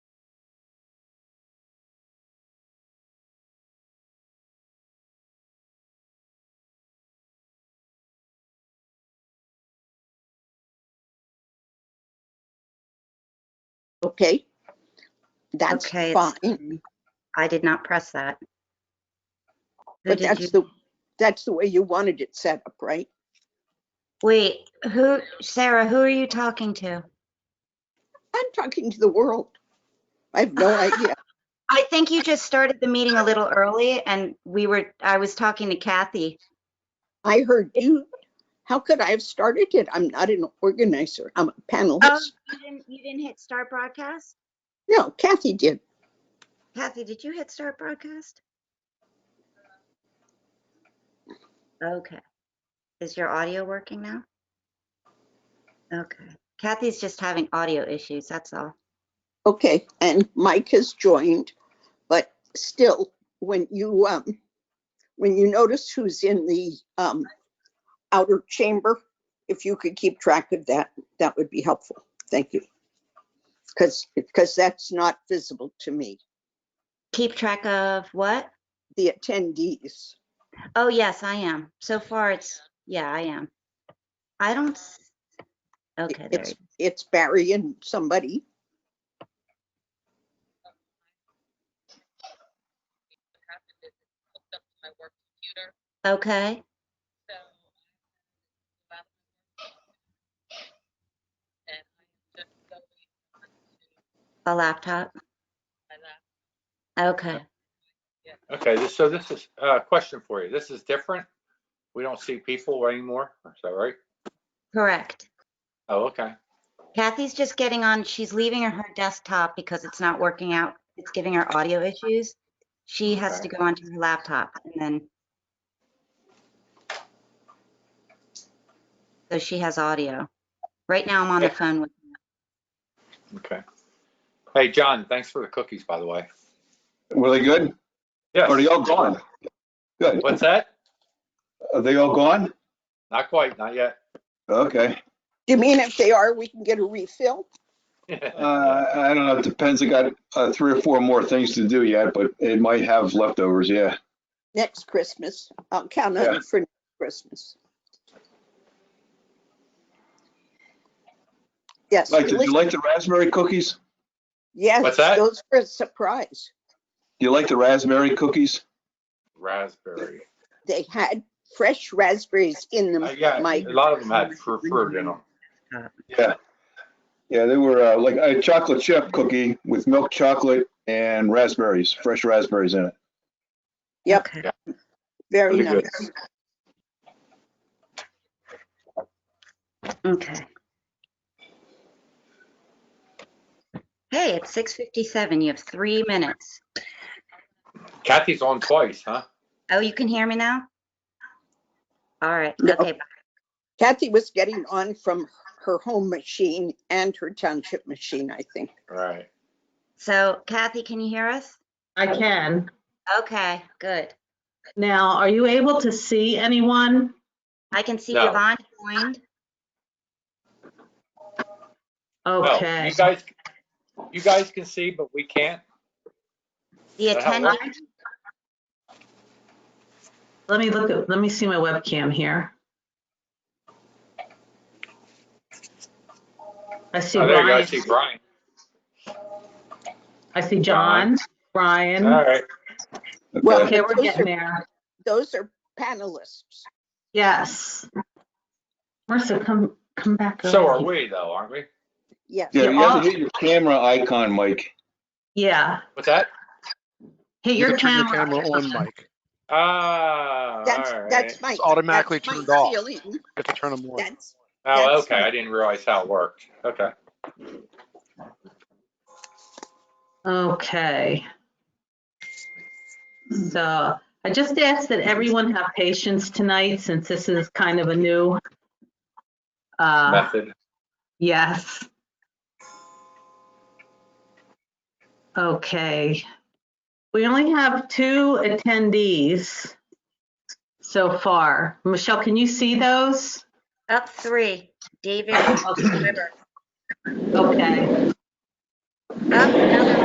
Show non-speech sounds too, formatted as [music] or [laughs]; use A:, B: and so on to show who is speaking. A: Okay, that's
B: Okay, it's-
A: fine,
B: I did not press that. Who
A: but
B: did you,
A: that's the, that's the way you wanted it set up, right?
B: wait, who, Sarah, who are you talking to?
A: I'm talking to the world. I have
B: [laughs]
A: no idea.
B: I think you just started the meeting a little early and we were, I was talking to Kathy.
A: I heard you. How could I have started it? I'm not an organizer. I'm a
B: Oh,
A: panelist.
B: you didn't, you didn't hit start broadcast?
A: No, Kathy did.
B: Kathy, did you hit start broadcast? Okay. Is your audio working now? Okay. Kathy's just having audio issues, that's all.
A: Okay, and Mike has joined, but still, when you, um, when you notice who's in the, um, outer chamber, if you could keep track of that, that would be helpful. Thank you. Because, because that's not visible to me,
B: Keep track of what?
A: the attendees.
B: Oh, yes, I am. So far, it's, yeah, I am. I don't, s- okay, there,
A: It's,
B: you-
A: it's Barry and somebody.
C: happened is it hooked up to my work computer,
B: okay,
C: so. um, And I'm just going to
B: a laptop,
C: my lap,
B: okay.
D: Okay, this- so this is uh, a question for you. This is different. We don't see people anymore. Is that right?
B: Correct.
D: Oh, okay.
B: Kathy's just getting on, she's leaving her- her desktop because it's not working out. It's giving her audio issues. She has to
D: Okay.
B: go onto her laptop and then. So she has audio. Right now, I'm on the
D: Yeah.
B: phone with,
D: Okay. Hey, John, thanks for the cookies, by the way.
E: Were they good? Are they
D: Yes.
E: all gone? Good.
D: What's that?
E: Are they all gone?
D: Not quite, not yet.
E: Okay.
A: Do you mean if they are, we can get a refill?
E: Uh, I don't know. It depends. I got uh, three or four more things to do yet, but it might have leftovers. Yeah.
A: Next Christmas. I'll count on
E: Yeah.
A: it for next Christmas. Yes.
E: Like, did
A: really-
E: you like the raspberry cookies?
A: Yes,
D: What's that?
A: those were a surprise.
E: Do you like the raspberry cookies?
D: [laughs] Raspberry.
A: They had fresh raspberries in them,
D: Uh, Yeah,
A: Mike.
D: a lot of them had fr- fruit in them.
E: Yeah. Yeah, they were uh, like a chocolate chip cookie with milk chocolate and raspberries, fresh raspberries in it.
A: Yep.
B: okay.
A: Very
D: Really good.
A: nice.
B: Okay. Hey, it's six fifty-seven. You have three minutes.
D: Kathy's on twice, huh?
B: Oh, you can hear me now? All right,
A: No.
B: okay,
A: Kathy was getting on from her home machine and her township machine, I think.
D: Right.
B: so Kathy, can you hear us?
F: I can.
B: Okay, good.
F: Now, are you able to see anyone?
B: I can see
D: No.
B: Yvonne joined.
D: No,
F: Okay.
D: You guys, you guys can see, but we can't.
B: The
D: Is that how it
B: attendee,
F: Let me look, at. let me see my webcam here. I see
D: Oh, there you go. I
F: Brian.
D: see Brian.
F: I see John,
D: All
F: Brian.
D: right.
E: Okay.
A: Well,
F: Okay, we're getting there.
A: Those are panelists.
F: Yes. Marissa, come, come back.
D: So
F: over
D: are
F: here.
D: we though, aren't we?
A: Yes.
E: Yeah, you
F: You're
E: have
F: on.
E: to hit your camera icon, Mike.
F: Yeah,
D: What's that?
F: hit
G: You
F: your
G: can turn your
F: camera.
G: camera on, Mike.
D: Ah,
A: That's,
D: all right.
A: that's my.
G: It's automatically
A: that's my
G: turned off. You
A: feeling.
G: have to turn them on.
A: That's,
D: Oh,
A: That's
D: okay. I didn't realize how it worked. Okay.
F: Okay. So I just ask that everyone have patience tonight since this is kind of a new. Uh,
D: Method.
F: yes. Okay. We only have two attendees so far. Michelle, can you see those?
B: up three, David
F: Okay.
B: Weber,
F: Okay.
B: up another